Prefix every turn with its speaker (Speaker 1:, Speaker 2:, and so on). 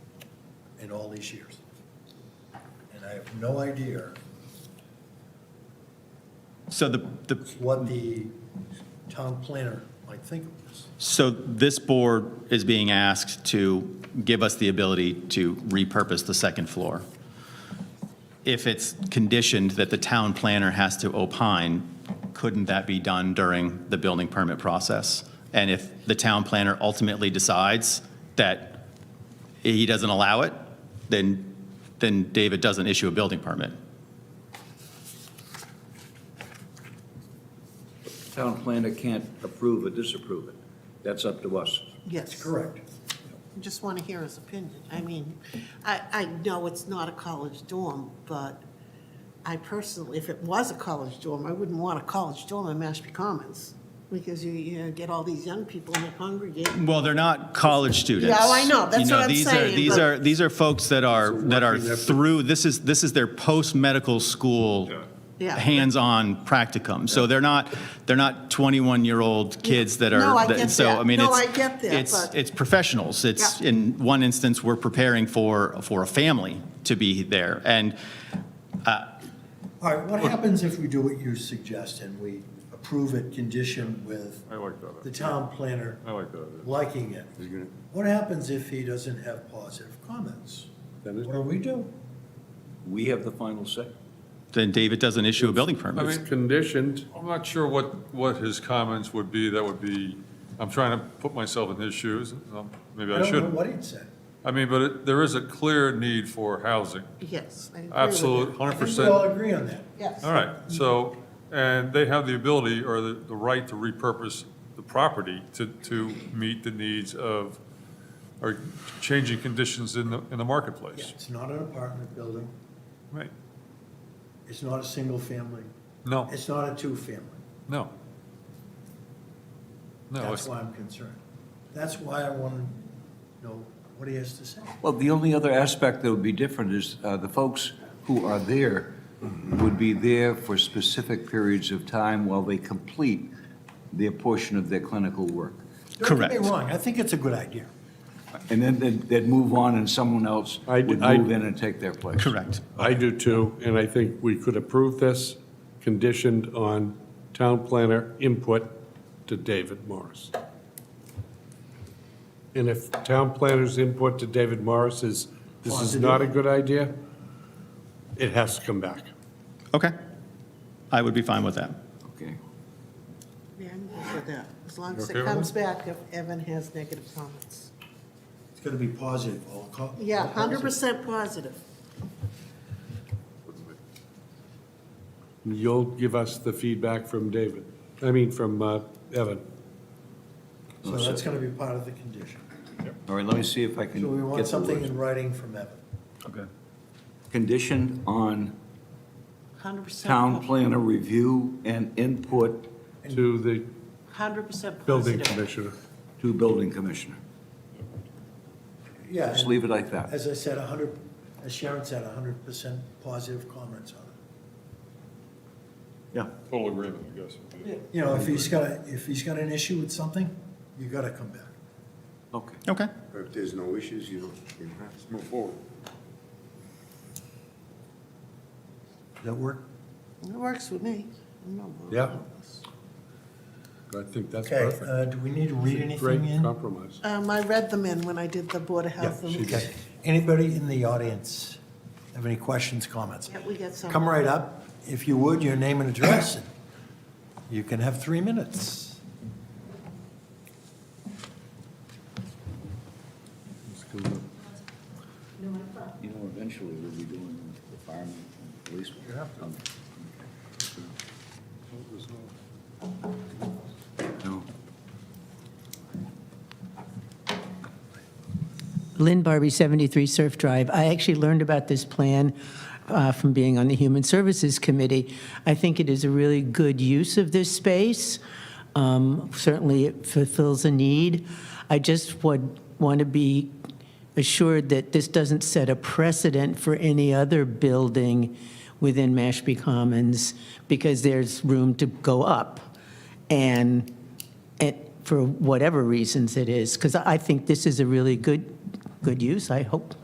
Speaker 1: in all these years. And I have no idea
Speaker 2: So the, the,
Speaker 1: what the town planner might think of this.
Speaker 2: so this board is being asked to give us the ability to repurpose the second floor. If it's conditioned that the town planner has to opine, couldn't that be done during the building permit process? And if the town planner ultimately decides that he doesn't allow it, then, then David doesn't issue a building permit.
Speaker 3: Town planner can't approve or disapprove it. That's up to us.
Speaker 1: It's
Speaker 4: Yes,
Speaker 1: correct.
Speaker 4: just want to hear his opinion. I mean, I, I know it's not a college dorm, but I personally, if it was a college dorm, I wouldn't want a college dorm in Mashpee Commons, because you, you know, get all these young people and they congregate.
Speaker 2: Well, they're not college students.
Speaker 4: Yeah, oh, I know. That's
Speaker 2: You know,
Speaker 4: what I'm
Speaker 2: these are-
Speaker 4: saying,
Speaker 2: These
Speaker 4: but-
Speaker 2: are, these are folks that are, that are
Speaker 1: working effort.
Speaker 2: through, this is, this is their post-medical school
Speaker 4: Yeah.
Speaker 2: hands-on practicum. So they're not, they're not 21-year-old kids that are.
Speaker 4: No, I get
Speaker 2: So, I
Speaker 4: that.
Speaker 2: mean,
Speaker 4: No,
Speaker 2: it's.
Speaker 4: I get that,
Speaker 2: It's,
Speaker 4: but-
Speaker 2: it's professionals. It's,
Speaker 4: Yeah.
Speaker 2: in one instance, we're preparing for, for a family to be there. And
Speaker 1: All right, what happens if we do what you suggest and we approve it conditioned with
Speaker 5: I like that.
Speaker 1: the town planner
Speaker 5: I like that.
Speaker 1: liking it?
Speaker 5: He's gonna-
Speaker 1: What happens if he doesn't have positive comments?
Speaker 5: That is-
Speaker 1: What do we do?
Speaker 3: We have the final say.
Speaker 2: then David doesn't issue a building
Speaker 5: I
Speaker 2: permit.
Speaker 5: mean,
Speaker 6: It's conditioned.
Speaker 5: I'm not sure what, what his comments would be that would be, I'm trying to put myself in his shoes, um, maybe
Speaker 1: I
Speaker 5: I
Speaker 1: don't know
Speaker 5: shouldn't.
Speaker 1: what he'd say.
Speaker 5: I mean, but it- there is a clear need for housing,
Speaker 4: Yes, I agree with you.
Speaker 5: absolute,
Speaker 1: I
Speaker 5: hundred
Speaker 1: think we all
Speaker 5: percent.
Speaker 1: agree on that.
Speaker 4: Yes.
Speaker 5: All right, so, and they have the ability or the, the right to repurpose the property to, to meet the needs of, or changing conditions in the, in the
Speaker 1: Yeah,
Speaker 5: marketplace.
Speaker 1: It's not an apartment building,
Speaker 5: Right,
Speaker 1: it's not a single family,
Speaker 5: no,
Speaker 1: it's not a two-family.
Speaker 5: no. No,
Speaker 1: That's
Speaker 5: it's,
Speaker 1: why I'm concerned. That's why I want to know what he has to say.
Speaker 3: Well, the only other aspect that would be different is uh, the folks who are there would be there for specific periods of time while they complete their portion of their clinical work.
Speaker 1: Don't get
Speaker 2: Correct.
Speaker 1: me wrong, I think it's a good idea.
Speaker 3: And then they'd- they'd move on and someone else
Speaker 6: I-
Speaker 3: would
Speaker 6: I-
Speaker 3: move in and take their place.
Speaker 2: Correct.
Speaker 6: I do too, and I think we could approve this conditioned on town planner input to David Morris. And if town planner's input to David Morris is, this is not a good idea, it has to come back.
Speaker 2: Okay. I would be fine with that.
Speaker 3: Okay.
Speaker 4: Yeah, I'm good with that, as long as
Speaker 5: okay
Speaker 4: it
Speaker 5: with
Speaker 4: comes back if Evan has negative comments.
Speaker 1: It's going to be positive, all co-
Speaker 4: Yeah,
Speaker 1: all positive.
Speaker 4: hundred percent positive.
Speaker 6: You'll give us the feedback from David, I mean, from uh, Evan.
Speaker 1: So that's going to be part of the condition.
Speaker 3: All right, let me see if I can
Speaker 1: So we want
Speaker 3: get the
Speaker 1: something
Speaker 3: words.
Speaker 1: in writing from Evan.
Speaker 2: Okay.
Speaker 3: Conditioned on
Speaker 4: Hundred percent.
Speaker 3: town planner review and input
Speaker 6: To the
Speaker 4: Hundred percent
Speaker 6: building
Speaker 4: positive.
Speaker 6: commissioner.
Speaker 3: to building commissioner.
Speaker 1: Yeah,
Speaker 3: Just
Speaker 1: and
Speaker 3: leave it like that.
Speaker 1: as I said, 100, as Sharon said, 100% positive comments on it.
Speaker 3: Yeah.
Speaker 5: total agreement, I guess. would be-
Speaker 1: You know, if he's got, a- if he's got an issue with something, you got to come back.
Speaker 3: Okay.
Speaker 2: Okay.
Speaker 7: If there's no issues, you don't, you don't have to move forward.
Speaker 1: Does that work?
Speaker 4: It works with me. I'm not worried
Speaker 6: Yeah.
Speaker 4: about this.
Speaker 6: I think that's
Speaker 1: Okay,
Speaker 6: perfect.
Speaker 1: uh, do we need to read anything
Speaker 6: Great
Speaker 1: in?
Speaker 6: compromise.
Speaker 4: Um, I read them in when I did the Board of Health.
Speaker 6: she
Speaker 4: and-
Speaker 6: did.
Speaker 1: Okay. Anybody in the audience have any questions, comments?
Speaker 4: Yeah, we get some.
Speaker 1: Come right up. If you would, your name and address. and You can have three minutes.
Speaker 3: You know, eventually we'll be doing the firemen and police. You have to. No.
Speaker 8: Lynn Barbie, 73 Surf Drive. I actually learned about this plan uh, from being on the Human Services Committee. I think it is a really good use of this space. Um, Certainly, it fulfills a need. I just would want to be assured that this doesn't set a precedent for any other building within Mashpee Commons, because there's room to go up. And and for whatever reasons it is, because I think this is a really good, good use, I hope.